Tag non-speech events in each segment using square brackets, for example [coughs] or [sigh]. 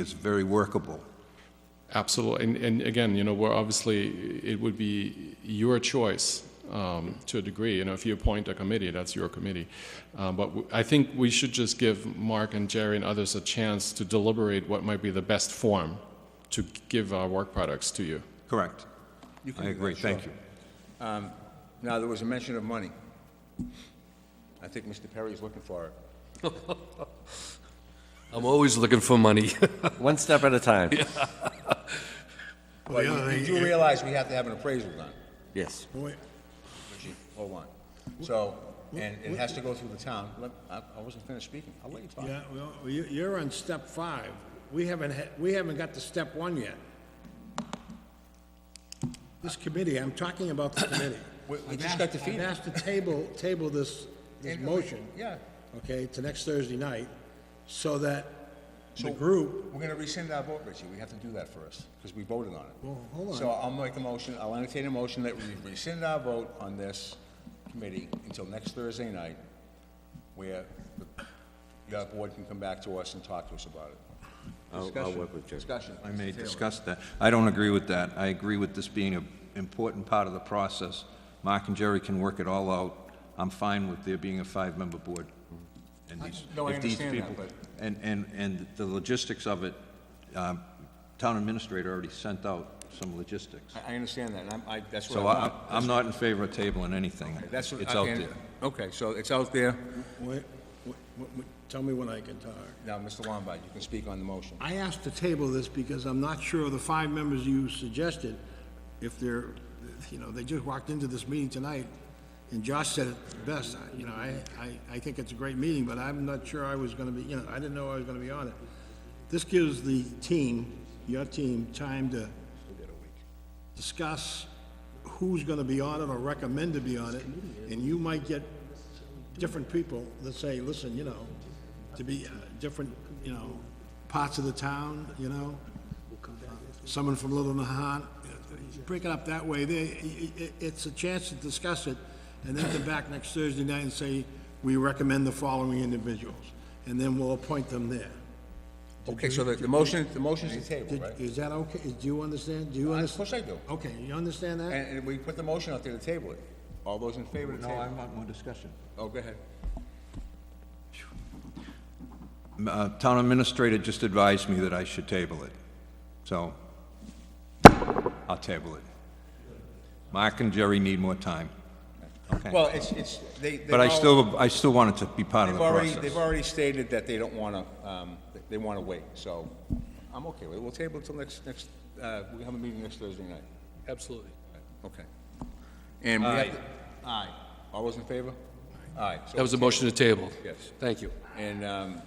is very workable. Absolutely. And, and again, you know, we're obviously, it would be your choice um, to a degree. You know, if you appoint a committee, that's your committee. Um, but w- I think we should just give Mark and Jerry and others a chance to deliberate what might be the best form to give our work products to you. Correct. I agree, thank you. Now, there was a mention of money. I think Mr. Perry is looking for it. I'm always looking for money. [laughs] One step at a time. But you- you do realize we have to have an appraisal done, Yes. Chief, hold on. So, and it has to go through the town. Let- I I wasn't finished speaking, I'll let you talk. Yeah, well, you, you're on step five. We haven't, had- we haven't got to step one yet. This committee, I'm talking about the committee. We- we I've just asked- got defeated. I've asked to table, table this, this And- motion. yeah. Okay, to next Thursday night, so that the So- group, We're gonna rescind our vote, Richie, we have to do that first, because we voted on it. Well, hold on. So I'll make a motion, I'll entertain a motion that we rescind our vote on this committee until next Thursday night, where the- your board can come back to us and talk to us about it. I'll, I'll Discussion. work with Jerry. Discussion. I may discuss that. I don't agree with that. I agree with this being an important part of the process. Mark and Jerry can work it all out. I'm fine with there being a five-member board. And these- No, I if these understand that, people- but- And, and, and the logistics of it, um, town administrator already sent out some logistics. I, I understand that, and I'm, I, that's what So I I, want. I'm not in favor of tabling anything. That's what. It's out and- there. Okay, so it's out there. wait, wait, wait, tell me when I can talk. Now, Mr. Lombard, you can speak on the motion. I asked to table this because I'm not sure of the five members you suggested, if they're, you know, they just walked into this meeting tonight, and Josh said it best, I- you know, I, I, I think it's a great meeting, but I'm not sure I was gonna be, you know, I didn't know I was gonna be on it. This gives the team, your team, time to discuss who's gonna be on it or recommend to be on it, and you might get different people that say, listen, you know, to be uh, different, you know, parts of the town, you know? Someone from Little Nahat, break it up that way, they, i- i- it's a chance to discuss it, and then come back next Thursday night and say, we recommend the following individuals, and then we'll appoint them there. Okay, so the, the motion, the motion's to table, Did- right? Is that okay, do you understand, do you Of understand? course I do. Okay, you understand that? And, and we put the motion out there to table it. All those in favor to No, I table? want more discussion. Oh, go ahead. Uh, Town administrator just advised me that I should table it, so I'll table it. Mark and Jerry need more time. Okay. Well, it's, it's, they, they've But I all- still, I still want it to be part of They've the already, they've process. already stated that they don't wanna, um, they- they wanna wait, so I'm okay with it. We'll table it till next, next, uh, we have a meeting next Thursday night. Absolutely. Okay. And we have to, aye. All those in favor? Aye. So That was a motion to table. Yes. Thank you. And um,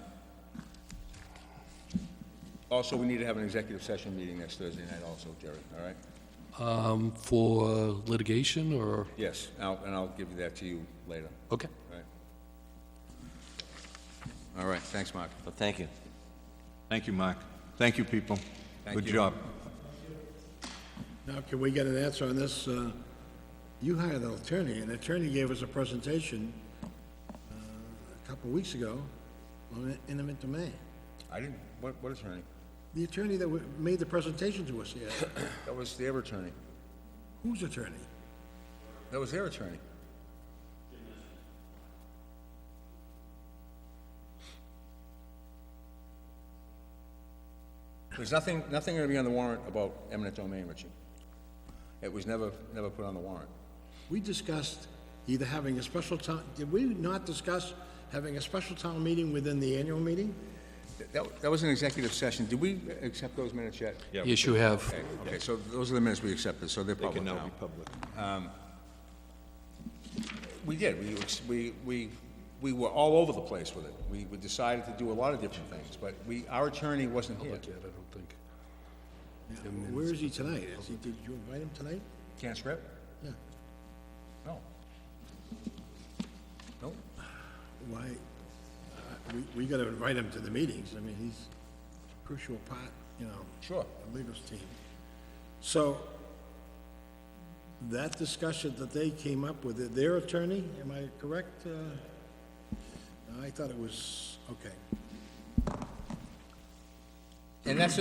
also, we need to have an executive session meeting next Thursday night also, Jerry, all right? Um, For litigation or, Yes, I'll- and I'll give that to you later, okay. all right? All right, thanks, Mark. Well, thank you. Thank you, Mark. Thank you, people. Thank Good you. job. Now, can we get an answer on this? Uh, You hired an attorney, and the attorney gave us a presentation uh, a couple of weeks ago on eminent domain. I didn't, what what attorney? The attorney that wa- made the presentation to us, yes. [coughs] That was their attorney. Whose attorney? That was their attorney. There's nothing, nothing going to be on the warrant about eminent domain, Richie. It was never, never put on the warrant. We discussed either having a special town, did we not discuss having a special town meeting within the annual meeting? That, that was an executive session. Did we accept those minutes yet? Yes, you have. Okay, Okay, so those are the minutes we accepted, so they're They public can now now. Um, be public. We did, we, ex- we, we, we were all over the place with it. We, we decided to do a lot of different things, but we, our attorney wasn't here. Where is he tonight? Is he, did you invite him tonight? Can't script? Yeah. No. Nope. Why, uh, we, we gotta invite him to the meetings, I mean, he's crucial part, you know. Sure. The legal team. So, that discussion that they came up with, their attorney, am I correct? uh? I thought it was, okay. And And that's,